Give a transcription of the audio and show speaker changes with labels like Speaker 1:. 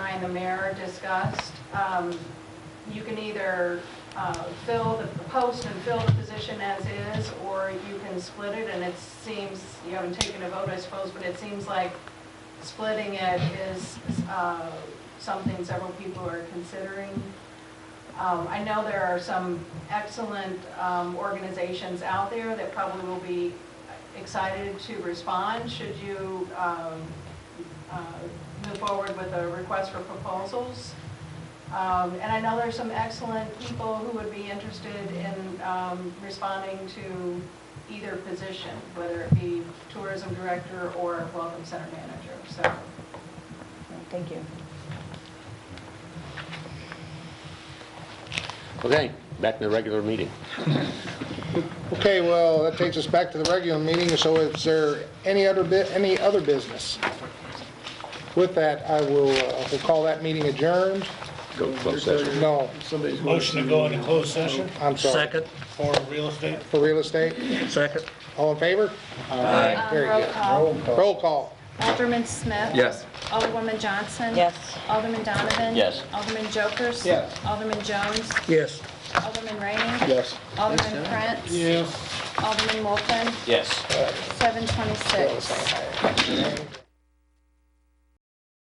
Speaker 1: and the mayor discussed, um, you can either uh, fill the post and fill the position as is, or you can split it, and it seems, you haven't taken a vote, I suppose, but it seems like splitting it is uh, something several people are considering. Um, I know there are some excellent um, organizations out there that probably will be excited to respond should you um, uh, move forward with a request for proposals. Um, And I know there's some excellent people who would be interested in um, responding to either position, whether it be tourism director or welcome center manager, so.
Speaker 2: Thank you.
Speaker 3: Okay, back to the regular meeting.
Speaker 4: Okay, well, that takes us back to the regular meeting, so is there any other, bu- any other business? With that, I will, uh, we'll call that meeting adjourned.
Speaker 3: Go to closed session.
Speaker 4: No,
Speaker 5: Motion to go into closed session
Speaker 4: I'm sorry,
Speaker 5: for real estate.
Speaker 4: for real estate.
Speaker 5: Second.
Speaker 4: All in favor? Aye. Very
Speaker 6: Roll
Speaker 4: good.
Speaker 6: call.
Speaker 4: Roll call.
Speaker 6: Alderman Smith.
Speaker 7: Yes.
Speaker 6: Alderwoman Johnson.
Speaker 2: Yes.
Speaker 6: Alderman Donovan.
Speaker 3: Yes.
Speaker 6: Alderman Jokers.
Speaker 7: Yes.
Speaker 6: Alderman Jones.
Speaker 4: Yes.
Speaker 6: Alderman Rainey.
Speaker 4: Yes.
Speaker 6: Alderman Prince. Yes. Alderman Wolfen.
Speaker 3: Yes.
Speaker 6: Seven twenty-six.